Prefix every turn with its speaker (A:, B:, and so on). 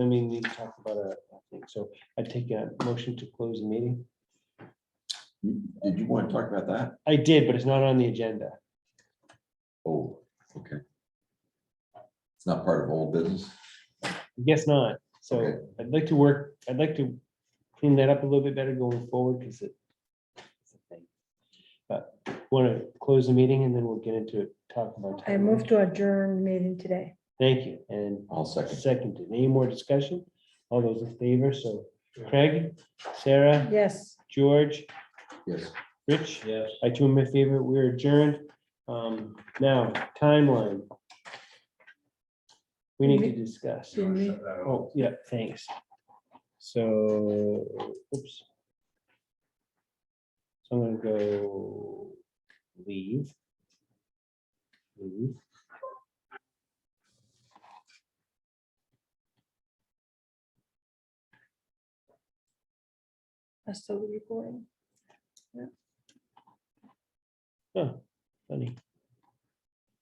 A: I mean, we talked about it, I think, so I take a motion to close the meeting.
B: You- Did you want to talk about that?
A: I did, but it's not on the agenda.
B: Oh, okay. It's not part of old business?
A: Guess not. So
B: Okay.
A: I'd like to work, I'd like to clean that up a little bit better going forward because it. it's a thing. But want to close the meeting and then we'll get into it, talk about.
C: I move to adjourn meeting today.
A: Thank you. And
B: I'll second.
A: seconded. Any more discussion? All those in favor? So Craig, Sarah,
C: Yes.
A: George,
B: Yes.
A: Rich? Yes. I do my favorite, we're adjourned. Um, now, timeline. We need to discuss.
C: Did we-
A: Oh, yeah, thanks. So, oops. So I'm gonna go leave. Leave.
C: That's still recording.
A: Oh, funny.